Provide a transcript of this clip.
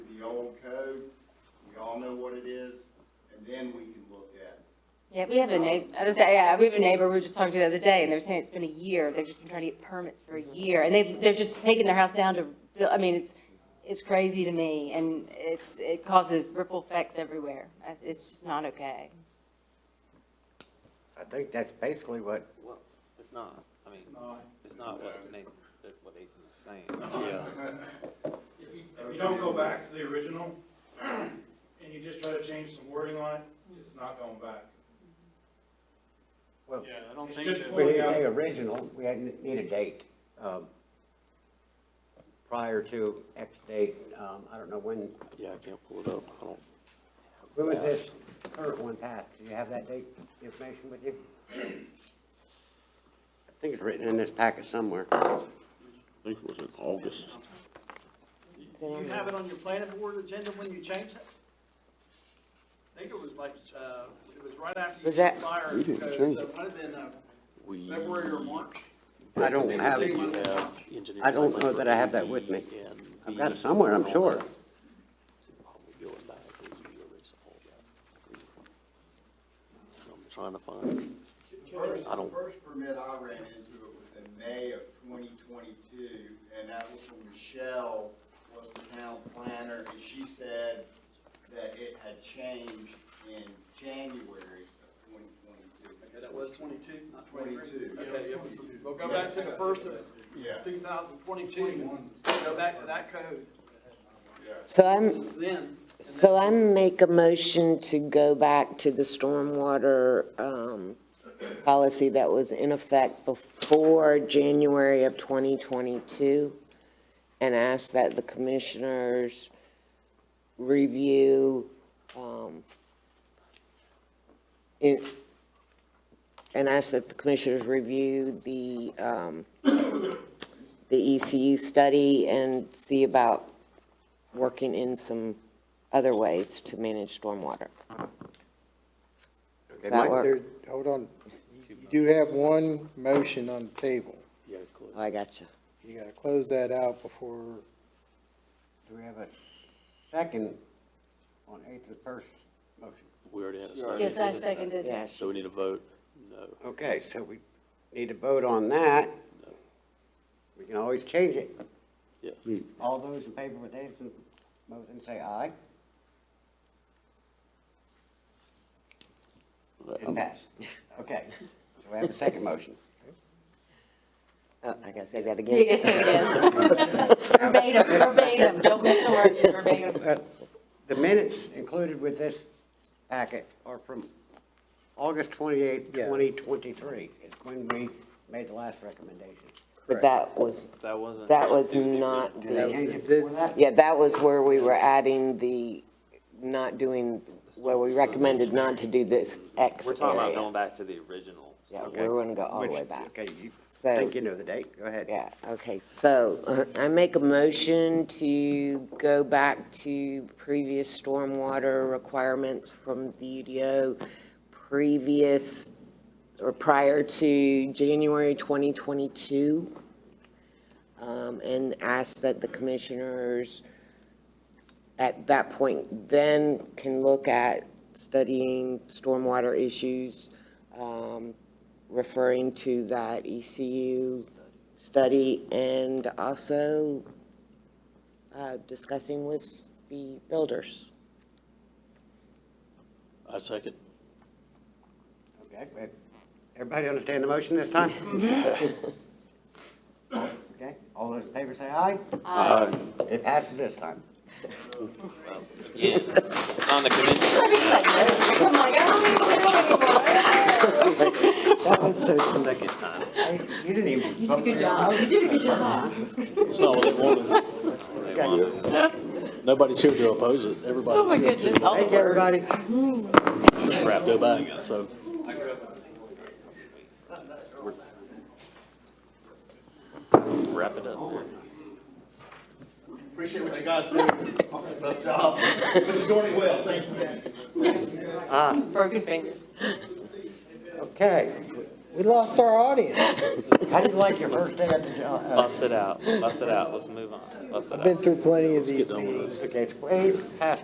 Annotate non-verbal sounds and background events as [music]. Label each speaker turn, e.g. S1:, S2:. S1: y'all know what it is, and then we can look at it.
S2: Yeah, we have a neighbor, I was, yeah, we have a neighbor, we were just talking to the other day, and they're saying it's been a year, they've just been trying to get permits for a year, and they, they're just taking their house down to, buil- I mean, it's, it's crazy to me, and it's, it causes ripple effects everywhere, Uh, it's just not okay.
S3: I think that's basically what,
S4: Well, it's not, I mean,
S1: not.
S4: it's not what Nathan, that- what Nathan is saying.
S5: If you, if you don't go back to the original, [clears throat] and you just try to change some wording on it, it's not going back.
S3: well,
S6: Yeah, I don't
S5: It's
S6: think
S5: just
S6: that,
S5: pulling-
S3: when you
S5: out-
S3: say original, we had, need a date, um, prior to X date, um, I don't know when,
S4: Yeah, I can't pull it up, I don't.
S3: when was this current one passed? Do you have that date information with you? I think it's written in this packet somewhere.
S7: I think it was in August.
S6: you have it on your planning board agenda when you changed it? I think it was like, uh, it was right after you
S8: Was that-
S6: expired.
S7: We didn't
S6: because
S7: change
S6: It might have been, uh,
S7: We.
S6: February or March.
S3: I don't have it.
S7: You have engineers
S3: I don't know
S7: like
S3: that I have that with me.
S7: Lee and
S3: I've got it
S7: these
S3: somewhere, I'm
S7: and all
S3: sure.
S7: that. Probably going back, these are the original, yeah. I'm trying to find,
S1: First,
S7: I don't-
S1: first permit I ran into it was in May of twenty twenty-two, and that was when Michelle was the town planner, and she said that it had changed in January of twenty twenty-two.
S6: Okay, that was twenty-two, not twenty-three.
S1: 22.
S6: Okay, yeah, we'll- we'll go back to the first of
S1: Yeah,
S6: two thousand twenty-two, go back to that code,
S8: So I'm,
S6: it's then. and
S8: so I make a motion to go back to the stormwater, um, policy that was in effect before January of 2022, and ask that the commissioners review, um, it, and ask that the commissioners review the, um, the ECU study and see about working in some other ways to manage stormwater. Does that work?
S9: There- Hold on, you you do have one motion on the table.
S7: yeah, close.
S8: Oh, I got you.
S9: You gotta close that out before,
S3: Do we have a second on eighth and first motion?
S7: we already had a second.
S2: Yes, I seconded it.
S8: Yes.
S7: So we need a vote? No.
S3: Okay, so we need to vote on that. We can always change it.
S7: Yes.
S3: All those in favor with Davison's motion, say aye.
S8: Um,
S3: It passed. [laughs] Okay, so we have a second motion.
S8: Oh, I gotta say that
S2: You
S8: again.
S2: can say it again. [laughs] Verbatim, verbatim, don't miss a word, verbatim.
S3: Uh, The minutes included with this packet are from August twenty-eighth,
S9: Yeah.
S3: twenty twenty-three, is when we made the last recommendation.
S8: But that was,
S4: That wasn't.
S8: that was not
S3: Did they
S8: the,
S3: change it before that?
S8: yeah, that was where we were adding the, not doing, where we recommended not to do this X
S4: We're talking about going
S8: area.
S4: back to the original.
S8: Yeah,
S3: Okay.
S8: we're gonna go all the
S3: Which-
S8: way back.
S3: Okay, you
S8: So-
S3: think you know the date, go ahead.
S8: Yeah, okay, so uh, I make a motion to go back to previous stormwater requirements from the UDO previous, or prior to January 2022, um, and ask that the commissioners at that point then can look at studying stormwater issues, um, referring to that E ECU study and also uh, discussing with the builders.
S7: I second.
S3: Okay, but everybody understand the motion this time? Okay, all those in favor say aye.
S7: Aye.
S3: It passes this time.
S4: Again, it's on the commission.
S2: Come on, guys.
S8: That was so,
S4: Second time.
S3: Hey, You didn't even.
S2: You did a good job, you did a good job.
S7: It's not what
S2: [laughs]
S7: they wanted.
S4: They wanted it.
S7: Nobody's here to oppose it.
S2: Oh my
S7: Everybody's here
S2: goodness, all the
S3: Thank
S2: words.
S3: you, everybody.
S7: to crap go back, so.
S4: Wrap it up there.
S1: appreciate what you guys do, tough job, but you're doing it well, thank you.
S2: Broken fingers.
S3: Okay,
S9: we lost our audience.
S3: how did you like your first day at the uh, job?
S4: Bust it out, bust it out, let's move on, bust it out.
S9: Been through plenty of these
S7: done with
S9: meetings.
S3: Okay, it's way past